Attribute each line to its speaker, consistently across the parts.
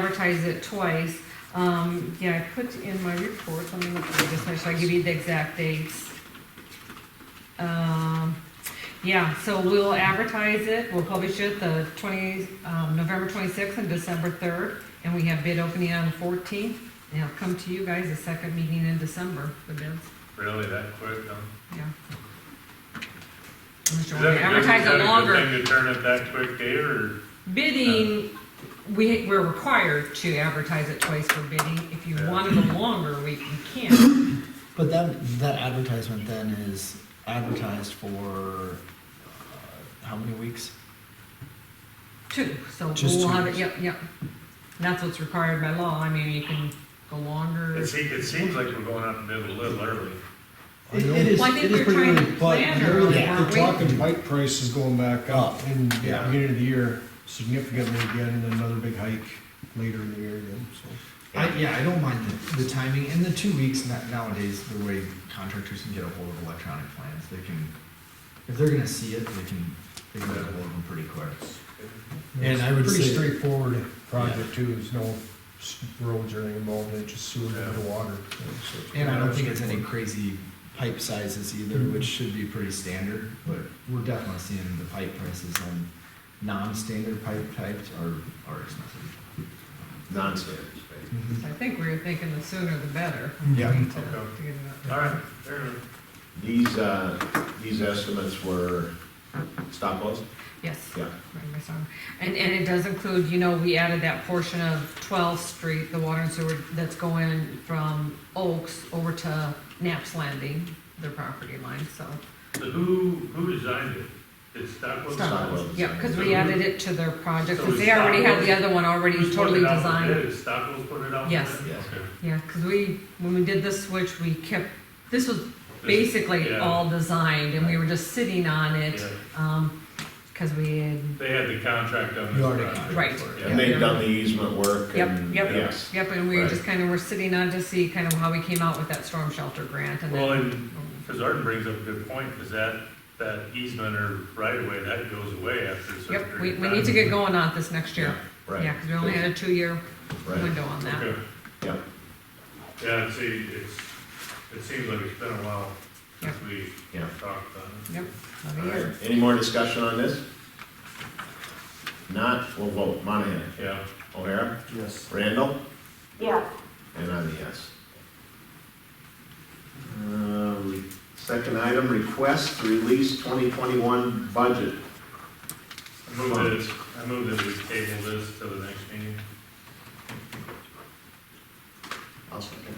Speaker 1: advertise it twice. Um, yeah, I put in my report, let me look at this, make sure I give you the exact dates. Um, yeah, so we'll advertise it, we'll publish it the twenty, um, November twenty-sixth and December third, and we have bid opening on the fourteenth. And it'll come to you guys the second meeting in December, the bids,
Speaker 2: Really, that quick, huh?
Speaker 1: yeah. I'm
Speaker 2: Is
Speaker 1: sure
Speaker 2: that
Speaker 1: we
Speaker 2: a good-
Speaker 1: advertise
Speaker 2: is that a
Speaker 1: it
Speaker 2: good
Speaker 1: longer.
Speaker 2: Thing to turn it that quick, Dave, or?
Speaker 1: Bidding, we, we're required to advertise it twice for bidding. If you
Speaker 2: Yeah.
Speaker 1: wanted it longer, we we can.
Speaker 3: But that that advertisement then is advertised for uh, how many weeks?
Speaker 1: Two, so
Speaker 3: Just
Speaker 1: we'll
Speaker 3: two.
Speaker 1: have it, yep, yep. And that's what's required by law. I mean, you can go longer.
Speaker 2: It seems, it seems like we're going out to bid a little early.
Speaker 4: It it is,
Speaker 1: Well, I think
Speaker 4: it
Speaker 1: we
Speaker 4: is
Speaker 1: were
Speaker 4: pretty
Speaker 1: trying
Speaker 4: early,
Speaker 1: to
Speaker 4: but
Speaker 1: plan
Speaker 4: they're really-
Speaker 1: early,
Speaker 4: they're
Speaker 1: weren't we?
Speaker 4: talking bike prices going back up in the
Speaker 3: Yeah.
Speaker 4: beginning of the year significantly again, and another big hike later in the year again, so.
Speaker 3: I, yeah, I don't mind the, the timing and the two weeks na- nowadays. The way contractors can get a hold of electronic plans, they can if they're gonna see it, they can they can get a hold of them pretty quick. And I would
Speaker 4: Pretty
Speaker 3: say-
Speaker 4: straightforward project too, there's no s- roads or anything involved, it's just sewer and water. you know, so it's
Speaker 3: And I don't think it's
Speaker 4: pretty
Speaker 3: any crazy pipe sizes either, which should be pretty standard. But we're definitely seeing the pipe prices on non-standard pipe types are are expensive.
Speaker 5: non-standard
Speaker 4: straightforward. Mhm.
Speaker 1: I think we were thinking the sooner the better.
Speaker 4: Yeah.
Speaker 1: I mean, to-
Speaker 2: Okay.
Speaker 1: to get it out.
Speaker 2: All right, fair enough.
Speaker 5: These, uh, these estimates were stop loss?
Speaker 1: Yes.
Speaker 5: Yeah.
Speaker 1: Right, my son. And, and it does include, you know, we added that portion of 12th Street, the water and sewer that's going from Oaks over to Knapp's Landing, their property line, so.
Speaker 2: So who, who designed it? Did Stockwell?
Speaker 5: Stockwell.
Speaker 2: design it?
Speaker 5: Stockwell.
Speaker 1: Yeah, because we added it to their project,
Speaker 2: So
Speaker 1: because
Speaker 2: it's
Speaker 1: they already had the
Speaker 2: Stockwell?
Speaker 1: other one already
Speaker 2: Who's
Speaker 1: totally
Speaker 2: put it out for
Speaker 1: designed.
Speaker 2: bid? Is Stockwell put it out? for
Speaker 1: Yes.
Speaker 2: bid?
Speaker 5: Yes.
Speaker 2: Okay.
Speaker 1: Yeah, because we, when we did this switch, we kept, this was
Speaker 2: This-
Speaker 1: basically
Speaker 2: yeah.
Speaker 1: all designed, and we were just sitting on it,
Speaker 2: Yeah.
Speaker 1: because we had,
Speaker 2: They had the contract on this
Speaker 3: You already
Speaker 2: project.
Speaker 1: right.
Speaker 2: Yeah.
Speaker 5: And they've done the easement work
Speaker 1: Yep,
Speaker 5: and,
Speaker 1: yep,
Speaker 5: yes.
Speaker 1: yep, and we were
Speaker 2: Right.
Speaker 1: just kind of, we're sitting on to see kind of how we came out with that storm shelter grant, and
Speaker 2: Well,
Speaker 1: then,
Speaker 2: and, because Arden brings up a good point, because that, that easement or right of way, that goes away after a certain
Speaker 1: yep, we,
Speaker 2: period of
Speaker 1: we
Speaker 2: time.
Speaker 1: need to get going on it this next year.
Speaker 5: Right.
Speaker 1: Yeah, because we only had a two-year
Speaker 5: Right.
Speaker 1: window on that.
Speaker 2: Okay.
Speaker 5: Yep.
Speaker 2: Yeah, and see, it's, it seems like it's been a while since we
Speaker 5: Yeah.
Speaker 2: talked about it.
Speaker 1: Yep,
Speaker 5: All
Speaker 1: another year.
Speaker 5: right. Any more discussion on this? Not, we'll vote. Monahan,
Speaker 2: Yeah,
Speaker 5: O'Hara,
Speaker 4: Yes.
Speaker 5: Randall,
Speaker 6: Yes,
Speaker 5: and I'm a yes. Uh, re- Second item, request to release 2021 budget.
Speaker 2: I move that, I move that we table this to the next meeting.
Speaker 5: I'll second.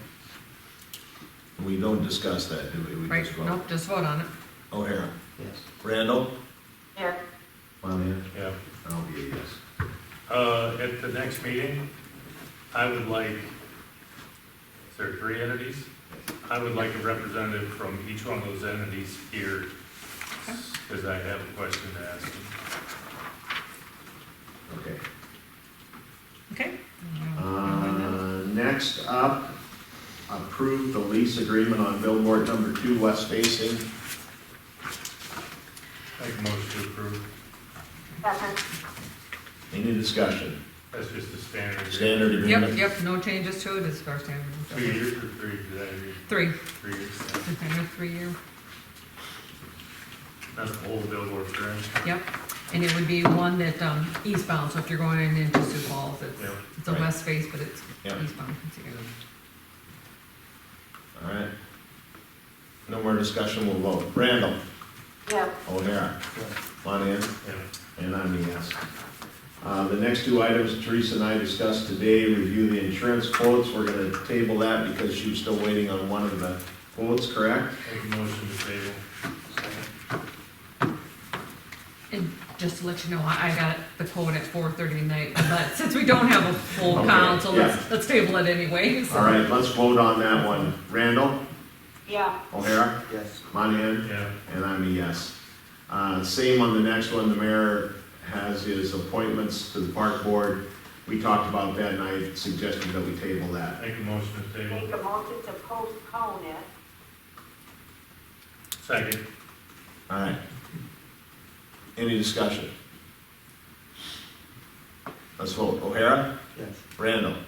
Speaker 5: We don't discuss that, do we? We
Speaker 1: Right,
Speaker 5: just vote.
Speaker 1: nope, just vote on it.
Speaker 5: O'Hara. Yes. Randall.
Speaker 6: yes,
Speaker 5: Monahan.
Speaker 2: Yeah.
Speaker 5: I'll be a yes.
Speaker 2: Uh, at the next meeting, I would like, is there three entities? I would like a representative from each one of those entities here, because I have a question to ask them.
Speaker 5: Okay.
Speaker 1: Okay.
Speaker 5: Uh, Next up, approve the lease agreement on billboard number two west facing.
Speaker 2: Make a motion to approve.
Speaker 6: second,
Speaker 5: Any discussion?
Speaker 2: That's just a standard. agreement.
Speaker 5: Standard
Speaker 1: Yep,
Speaker 5: agreement?
Speaker 1: yep, no changes to it, it's our standard.
Speaker 2: Two years or three, did I agree?
Speaker 1: Three,
Speaker 2: Three years.
Speaker 1: it's kind of three-year,
Speaker 2: That's the whole billboard, correct?
Speaker 1: yep. And it would be one that, um, eastbound, so if you're going into Sioux Falls, it's,
Speaker 2: Yeah,
Speaker 1: it's a
Speaker 5: right.
Speaker 1: west face, but it's
Speaker 5: Yeah.
Speaker 1: eastbound. it's the other.
Speaker 5: All right. No more discussion, we'll vote. Randall.
Speaker 6: yes.
Speaker 5: O'Hara. Monahan.
Speaker 2: Yeah.
Speaker 5: And I'm a yes. Uh, The next two items Teresa and I discussed today, review the insurance quotes. We're going to table that because she was still waiting on one of the quotes, correct?
Speaker 2: Make a motion to table.
Speaker 1: And just to let you know, I, I got the quote at four thirty tonight, but since we don't have a full
Speaker 5: Okay,
Speaker 1: council,
Speaker 5: yeah.
Speaker 1: let's, let's table it anyway, so.
Speaker 5: All right, let's vote on that one. Randall.
Speaker 6: yes.
Speaker 5: O'Hara? Yes. Monahan?
Speaker 2: Yeah.
Speaker 5: And I'm a yes. Uh, Same on the next one, the mayor has his appointments to the park board. We talked about that and I suggested that we table that.
Speaker 2: Make a motion to table.
Speaker 6: Make a motion to postpone it,
Speaker 2: Second.
Speaker 5: All right. Any discussion? Let's vote. O'Hara?
Speaker 7: Yes.
Speaker 5: Randall?